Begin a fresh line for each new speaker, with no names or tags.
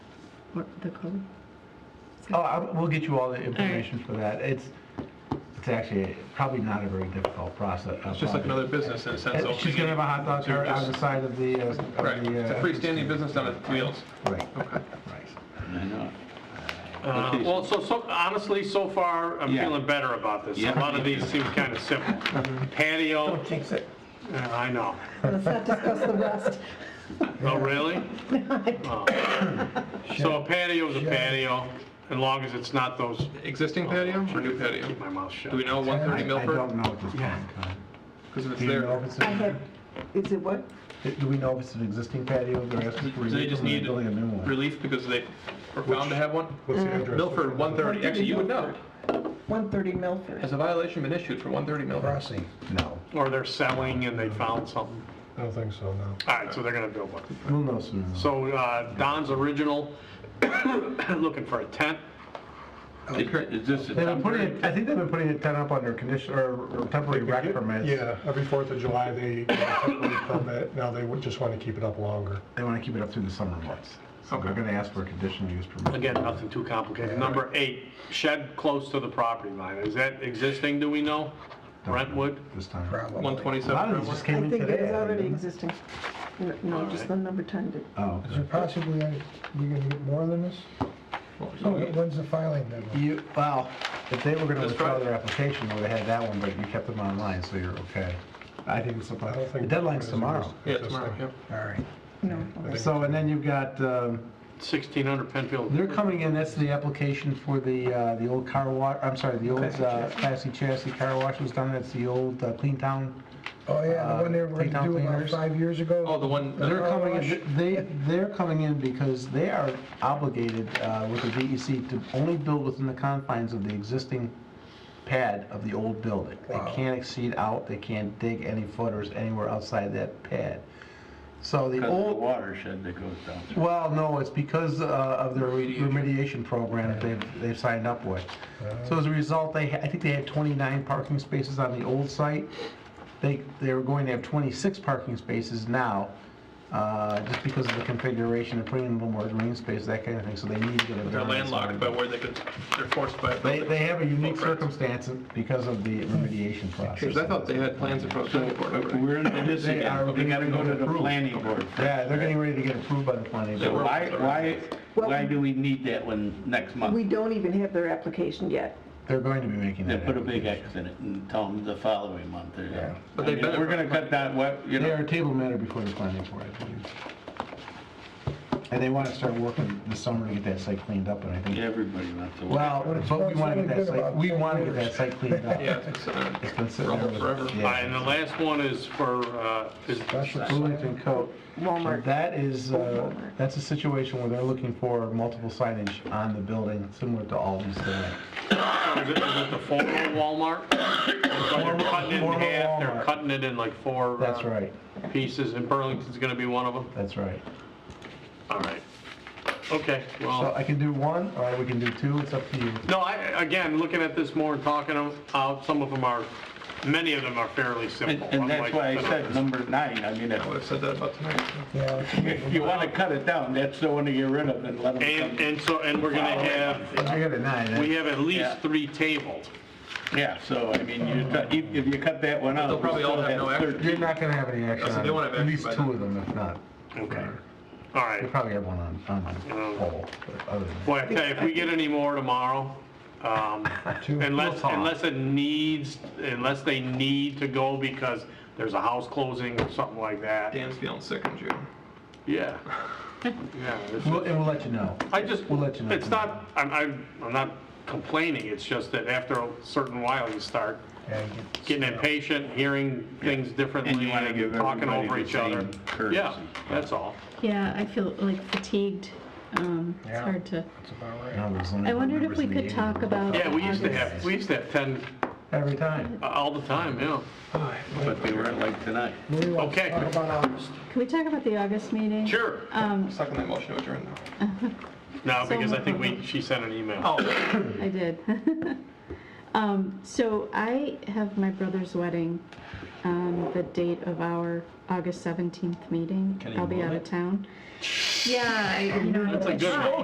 What, the code?
Oh, I- we'll get you all the information for that. It's, it's actually probably not a very difficult process. uh,
It's just like another business in a sense. opening
She's gonna have a hot dog
They're
cart on the
just-
side of the, uh, of the.
Right, it's a
uh,
freestanding business on its wheels.
Right,
Okay.
right.
I know.
Uh,
Okay, so-
Well, so, so honestly, so far, I'm
Yeah.
feeling better about this.
Yeah.
A lot of these seem kind of simple. Patio,
Don't jinx it.
uh, I know.
Let's not discuss the rest.
Oh, really? Oh. So a patio is a patio, as long as it's not those,
Existing patio or new patio?
keep my mouth shut.
Do we know 130
I- I
Milford?
don't know at this point in time.
Because if it's
Do you know
there,
if it's,
I have,
a-
is it what?
do we know if it's an existing patio they're asking for?
do they
relief
just
or they're
need
Building a new one.
relief because they were found to have one?
What's the address?
Milford, 130, actually, you would know.
130 Milford.
Has a violation been issued for 130 Milford?
Crossing.
No,
Or they're selling and they found something.
I don't think so, no.
All right, so they're gonna build one.
we'll know soon.
So uh, Don's original, looking for a tent.
Oh,
Is this a
They've been putting,
temporary?
it- I think they've been putting a tent up under condition, or or temporary rec permits.
Yeah, every 4th of Uh, July, they get a temporary permit, now they would just want to keep it up longer.
They wanna keep it up through the summer months. So they're gonna ask for a conditional use permit.
Again, nothing too complicated. Number eight, shed close to the property line. Is that existing, do we know? Brentwood?
This time. A
127
lot of
Brentwood?
these just
I
came in
think it
today.
is already
didn't
existing. No, No, just the number 10 did.
they? Oh,
Is there possibly, we gonna get more than this?
Oh,
When's the filing deadline?
you, well, if they were gonna
That's
withdraw
right.
their application, they would have had that one, but you kept them online, so you're okay. I think it's,
I don't
about- the
think-
deadline's tomorrow.
Yeah, tomorrow, yeah.
All right.
No. okay.
So, and then you've got, um,
1600 Penfield.
They're coming in, that's the application for the, uh, the old car wash, I'm sorry, the old uh, Classy Chassis car wash was done, that's the old uh, Clean Town.
Oh, yeah,
the one they were gonna do about five
years ago?
Oh, the one,
They're
the
coming in, they, they're coming in because they are obligated uh, with the DEC to only build within the confines of the existing pad of the old building. They
Wow.
can't exceed out, they can't dig any footers anywhere outside that pad. So the
Because of the
old,
watershed that goes down through.
Well, no, it's because uh, of their remediation program that they've, they've signed up with. So as a result, they, ha- I think they had 29 parking spaces on the old site. They, they were going to have 26 parking spaces now, uh, just because of the configuration, and putting in a little more green space, that kind of thing, so they need to get a
they're
variance on
landlocked
it.
by where they could, they're forced by.
They, they have a unique
Footprints.
circumstance because of the remediation process.
Because I thought they had plans approved by the board over there.
We're in this
They are-
again, we gotta go to the planning board.
Yeah, they're getting ready to get approved by the planning
They
board.
were-
Why, why,
Well-
why do we need that one next
We
month?
don't even have their application yet.
They're going to be making
They
that.
put a big
application.
X in it and tell them the following month. they're done.
But
I
they
mean,
better-
We're gonna cut that, what, you
They are
know,
a table matter before the planning board, I believe. And they want to start working this summer to get that site cleaned up, and I think,
everybody wants to.
well, but we want to get that site, we want to get that site cleaned up.
Yeah, it's been sitting
It's been sitting
Rumble
there
forever.
with-
All right, and the
yeah.
last one is for, uh, is
Bloomington Coat.
Walmart.
That is, uh, that's a situation where they're looking for multiple signage on the building, similar to Aldi's there.
is it is it the former Walmart? So they're cutting it in
Former
half,
Walmart.
they're cutting it in like four. uh,
That's right,
Pieces, and Burlington's gonna be one of them?
that's right.
All right. Okay,
So
Oh.
well,
I can do one, or we can do two, it's up to you.
no, I, again, looking at this more and talking them out, some of them are, many of them are fairly
And
simple.
and that's
unlike
why I
the
said
others.
number nine, I mean, if
I would have said that about tonight.
if you wanna cut it down, that's the one to get rid of and let them
And,
come.
and so, and we're gonna have,
I got a nine,
we
eh?
have at least
Yeah.
three tabled.
Yeah, so, I mean, you, cut- if if you cut that one out.
They'll
we
probably all
still
have no action.
thirteen.
you're not going to have any action
so
on
they
it,
won't have
at
action
least
by
two
then.
of them, if not.
Okay. All right.
We probably have one on, on
Oh.
the poll, but other than that.
Boy, I tell you, if we get any more tomorrow, um, unless, unless it needs, unless they need to go because there's a house closing or something like that.
Dan's feeling sick in June.
Yeah. Yeah. it's-
We'll- And we'll let you know.
I just,
We'll let you know
it's not, I'm, I'm, I'm not complaining, it's just that after a certain while, you start getting impatient, hearing things differently
And you wanna give
and talking
everybody
over
the
each other.
same courtesy.
Yeah, that's all.
Yeah, I feel like fatigued. Um, It's
Yeah.
hard to,
I
I wondered if we could talk about.
Yeah, we used to
August.
have, we used to have 10
Every time.
uh, all the time, yeah.
But they weren't like tonight.
Okay.
Can we talk about the August meeting?
Sure.
Um,
Second that motion to adjourn now.
No, because I think we, she sent an email.
Oh,
I did. Um, So I have my brother's wedding, um, the date of our August 17th meeting.
Can you
I'll be
move
out
it?
of town. Yeah, I, you know. I
That's a
tried.
good one.